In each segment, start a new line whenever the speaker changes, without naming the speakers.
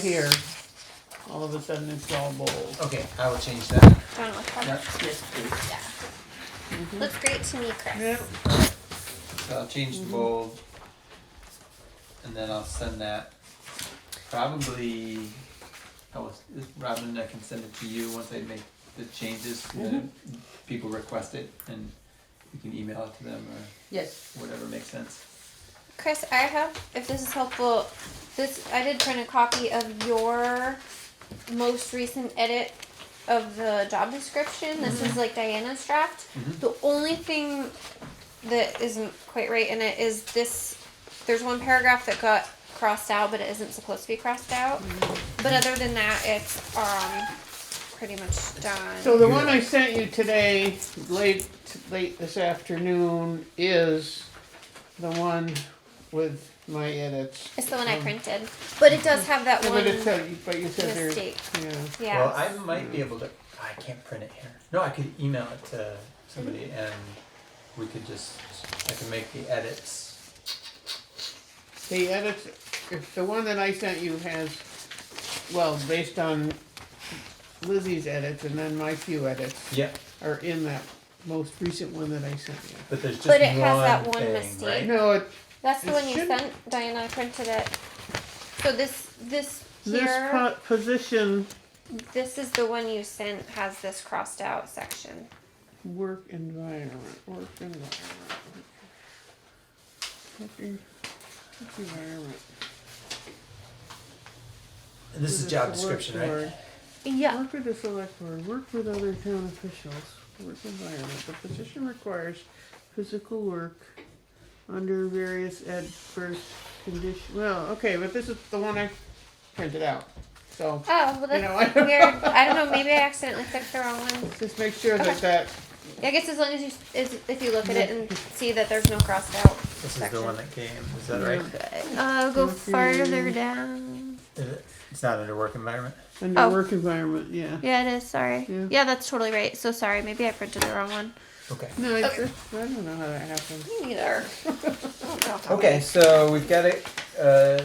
here, all of a sudden it's all bold.
Okay, I will change that.
I don't know what's happening.
Yep,
Yes, please.
Yeah. Looks great to me, Chris.
so I'll change the bold. And then I'll send that, probably, I was, Robin, I can send it to you once I make the changes, then people request it, and you can email it to them or
Yes.
whatever makes sense.
Chris, I have, if this is helpful, this I did print a copy of your most recent edit of the job description. This
Mm-hmm.
is like Diana's draft.
Mhm.
The only thing that isn't quite right in it is this. There's one paragraph that got crossed out, but it isn't supposed to be crossed out.
Mm-hmm.
But other than that, it's um pretty much done.
So the one I sent you today, late, late this afternoon, is the one with my edits.
it's the one I printed, but it does have that
Oh. Mm-hmm. Yeah,
one
But it said, but you said there,
mistake.
yeah.
Yeah.
Well, I might be able to, I can't print it here. No, I could email it to somebody and we could just, I can make the edits.
The edits, if the one that I sent you has, well, based on Lizzie's edits and then my few edits
Yep,
are in that most recent one that I sent you.
but there's just one
But
thing,
it has that one
right?
mistake.
No, it,
That's the
It
one you
shouldn't-
sent, Diana. I printed it. So this, this
this
here,
po- position,
this is the one you sent has this crossed out section.
work environment, work environment. Work en- work environment.
And This is
With the
job
select
description, right?
board.
Yeah.
Work with the select board, work with other town officials, work environment. The position requires physical work under various adverse conditions. Well, okay, but this is the one I printed out. So
Oh, well,
You
that's
know, I-
weird. I don't know. Maybe I accidentally clicked the wrong one.
just make sure that
Okay.
that,
I guess as long as you, as, if you look at it and see that there's no crossed out.
This is the
section.
one that came, is that right?
Uh, go
Okay.
farther down.
Is it- It's not under work environment?
under
Oh.
work environment, yeah.
Yeah, it is. Sorry.
Yeah.
Yeah. that's totally right. So sorry. Maybe I printed the wrong one.
Okay.
No, it's,
Okay.
I don't know how that happened.
Me neither.
Okay, so we've got a, uh,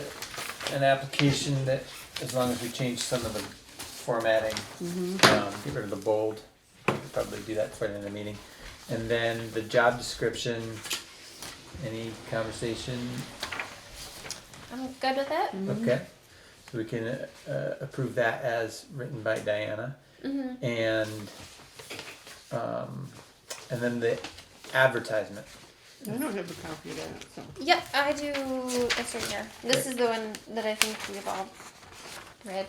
an application that, as long as we change some of the formatting, um, get rid of the bold, we'll probably do that for the end of the meeting. And then the job description, any conversation,
I'm good with it.
Mm-hmm.
okay? So we can, uh, approve that as written by Diana.
Mm-hmm.
and um, and then the advertisement.
I don't have a copy of that, so.
Yep, I do. It's right here. This
Okay.
is the one that I think we've all read.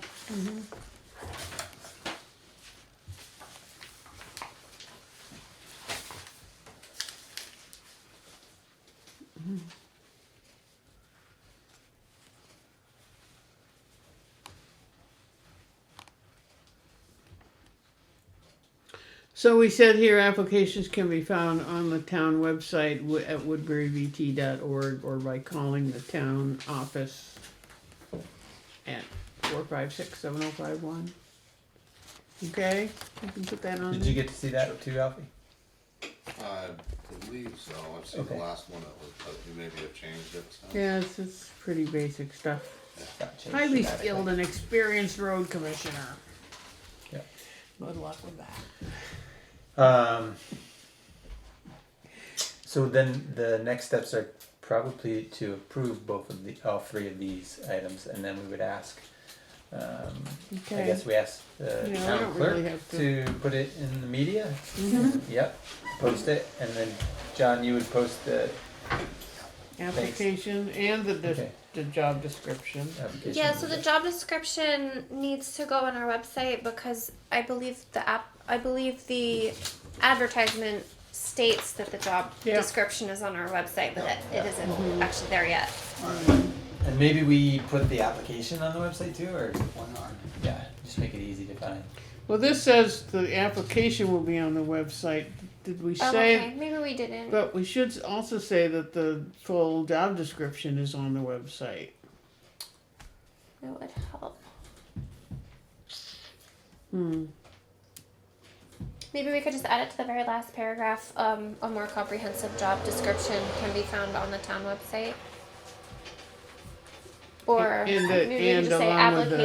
So we said here, applications can be found on the town website wo- at woodburyvt.org or by calling the town office at four five six seven oh five one. Okay, you can put that on
Did you
there.
get to see that too, Alfie?
I believe so. I've seen the
Okay.
last one that was, but you maybe have changed it since.
Yeah, it's, it's pretty basic stuff.
Got changed
Highly
dramatically.
skilled and experienced road commissioner.
Yeah.
Good luck with that.
Um, so then the next steps are probably to approve both of the all three of these items, and then we would ask. Um, I
Okay.
guess we asked the
Yeah, I
town
don't
clerk
really have Mm-hmm.
to... put it in the media. Yep, post it, and then John, you would post the
Application and the, dis-
Okay.
the job description.
application.
Yeah, so the job description needs to go on our website because I believe the app, I believe the advertisement states that the job
Yeah.
description is on our website, but it, it isn't actually there yet.
And maybe we put the application on the website too, or yeah, just make it easy to find.
Well, this says the application will be on the website. Did we
Oh,
say?
okay, maybe we didn't.
But we should also say that the full job description is on the website.
That would help.
Hmm.
Maybe we could just add it to the very last paragraph. Um, a more comprehensive job description can be found on the town website. Or
And the-
maybe we
and
could just say
along with the-
application.